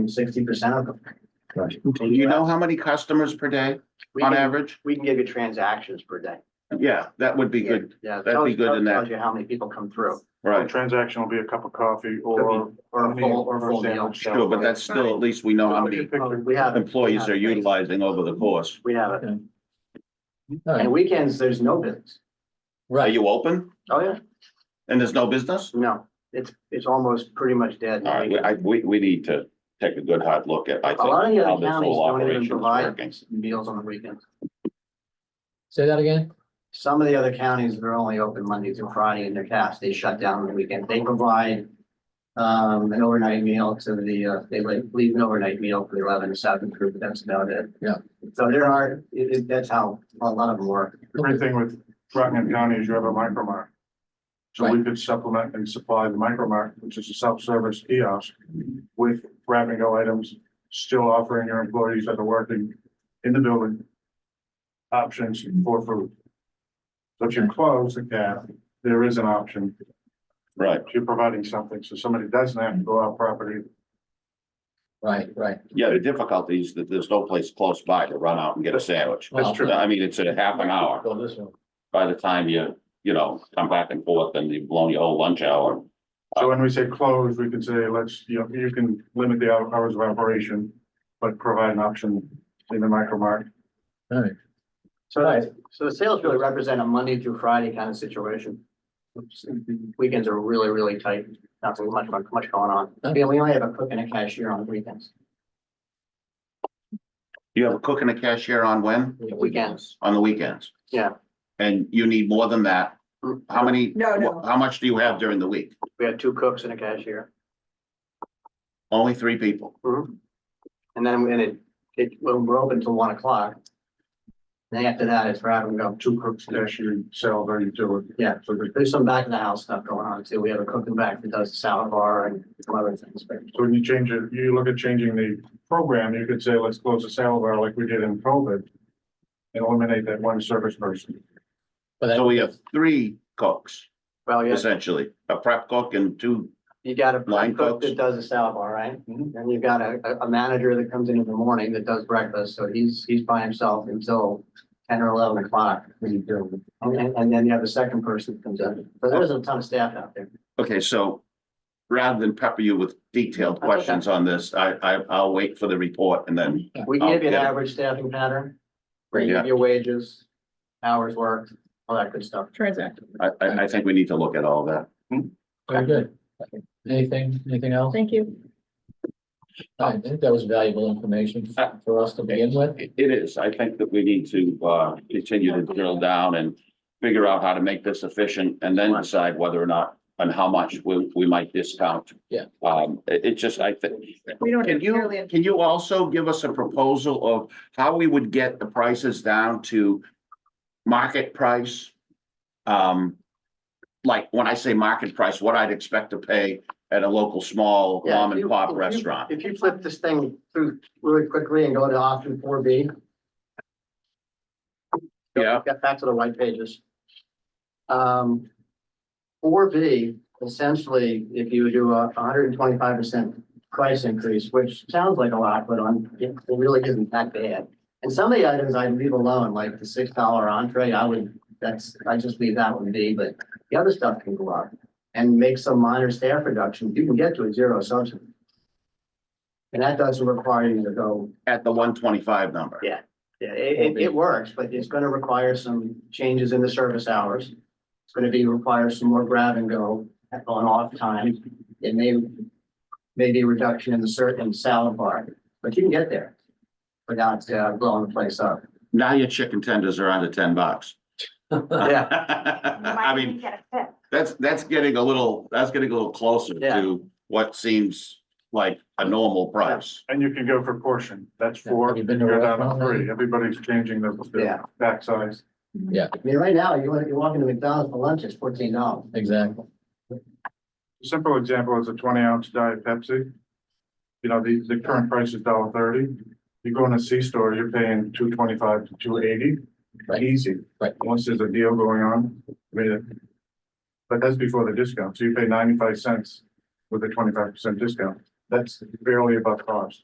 sixty percent of them. Do you know how many customers per day We on can, average? we can give you transactions per day. Yeah, that would be good, Yeah. That'd be good in that. Tells you how many people come through A right? Uh, transaction will be a cup of coffee or. or a full, or a full meal. sandwich. Sure, but that's still, at least we know how many Oh, We have. employees are utilizing over the course. We have it. Alright. And weekends, there's no business. Are Right, you open Oh, yeah. and there's no business? No, it's, it's almost pretty much dead. All right, we- I, we, we need to take a good hard look at, I A lot of think, the how other this counties whole don't even operation is provide working. meals on the weekends. say that again? Some of the other counties, they're only open Monday through Friday and their cast, they shut down on the weekend. They provide um, an overnight meal to the, uh, they like leave an overnight meal for the eleven to seven group, but that's about it. Yeah. So there are, it, it, that's how a lot of them work. Great thing with Rockingham County is you have a micro mart. So we could supplement and supply the micro mart, which is a self-service kiosk with grab and go items, still offering your employees that are working in the building options for food. So if you close the gap, there is an option. Right, If You're providing something, so somebody doesn't have to go out property. Right, right. yeah, the difficulty is that there's no place close by to run out and get a sandwich. That's true. I mean, it's a half an hour. Go this one. By the time you, you know, come back and forth and you've blown your whole lunch hour. So when we say close, we can say, let's, you know, you can limit the hou- hours of operation, but provide an option in the micro mart. Alright, So, so the sales really represent a Monday through Friday kind of situation. Weekends are really, really tight, not so much, much going on. Yeah, we only have a cook and a cashier on weekends, You have a cook and a cashier on when? weekends. On the weekends? Yeah. And you need more than that? How many? No, no. How much do you have during the week? We have two cooks and a cashier. Only three people. Mm-hmm. And then when it, it, when we're open till one o'clock. Then after that, it's right, we go, two cooks, cashier, sell their utility. yeah, So we- there's some back of the house stuff going on too. We have a cooking back that does the salad bar and some other things, but so when you change it, you look at changing the program, you could say, let's close the salad bar like we did in COVID. And eliminate that one service person. But that, So we have three cooks well, yeah, essentially, a prep cook and two, you got a Line cook cooks. that does the salad bar, right? Mm-hmm. And you've got a, a- a manager that comes in in the morning that does breakfast, so he's, he's by himself until ten or eleven o'clock. And, and then you have the second person that comes in. So there's a ton of staff out there. okay, so. Rather than pepper you with detailed okay. questions on this, I, I, I'll wait for the report and then, We give you an Okay. average staffing pattern. We Yeah. give you wages, hours worked, all that good stuff. Transact. I, I, I think we need to look at all that. very good. Anything, anything else? Thank you. I think that was valuable information Uh, for us to begin with. It it is, I think that we need to, uh, continue to drill down and figure out how to make this efficient and then decide whether or not. And how much we, we might discount. Yeah. Um, it, it just, I think, We don't Can necessarily you, have can you also give us a proposal of how we would get the prices down to market price? Um, like, when I say market price, what I'd expect to pay at a local small Yeah, if mom you- and pop if you- restaurant. Uh, If you flip this thing through really quickly and go to option four B. Yeah. Get back to the white pages. Um, four B, essentially, if you do a hundred and twenty-five percent price increase, which sounds like a lot, but on, it really isn't that bad. And some of the items I leave alone, like the six dollar entree, I would, that's, I just leave that one be, but the other stuff can go up. And make some minor staff reduction, you can get to a zero assumption. And that doesn't require you to go, At the one twenty-five number. Yeah. yeah, it, it, it works, but it's gonna require some changes in the service hours. It's gonna be, require some more grab and go at- on off time. It may, maybe a reduction in the certain salad bar, but you can get there without uh, blowing the place up. Now your chicken tenders are under ten bucks. Yeah. I mean, that's, that's getting a little, that's getting a little closer Yeah. to what seems like a normal price. And you can go for portion, that's Yeah, four, have you you been to a go down to restaurant lately? three, everybody's changing the, Yeah. the back size. I mean, right now, you want, you walk into McDonald's for lunch, it's fourteen dollars. Exactly. Simple example is a twenty ounce diet Pepsi. You know, the, the current price is dollar thirty. You go in a C store, you're paying two twenty five to two eighty. Right. Easy. Right. Once there's a deal going on, I mean, it- But that's before the discount. So you pay ninety five cents with a twenty five percent discount. That's barely above cost.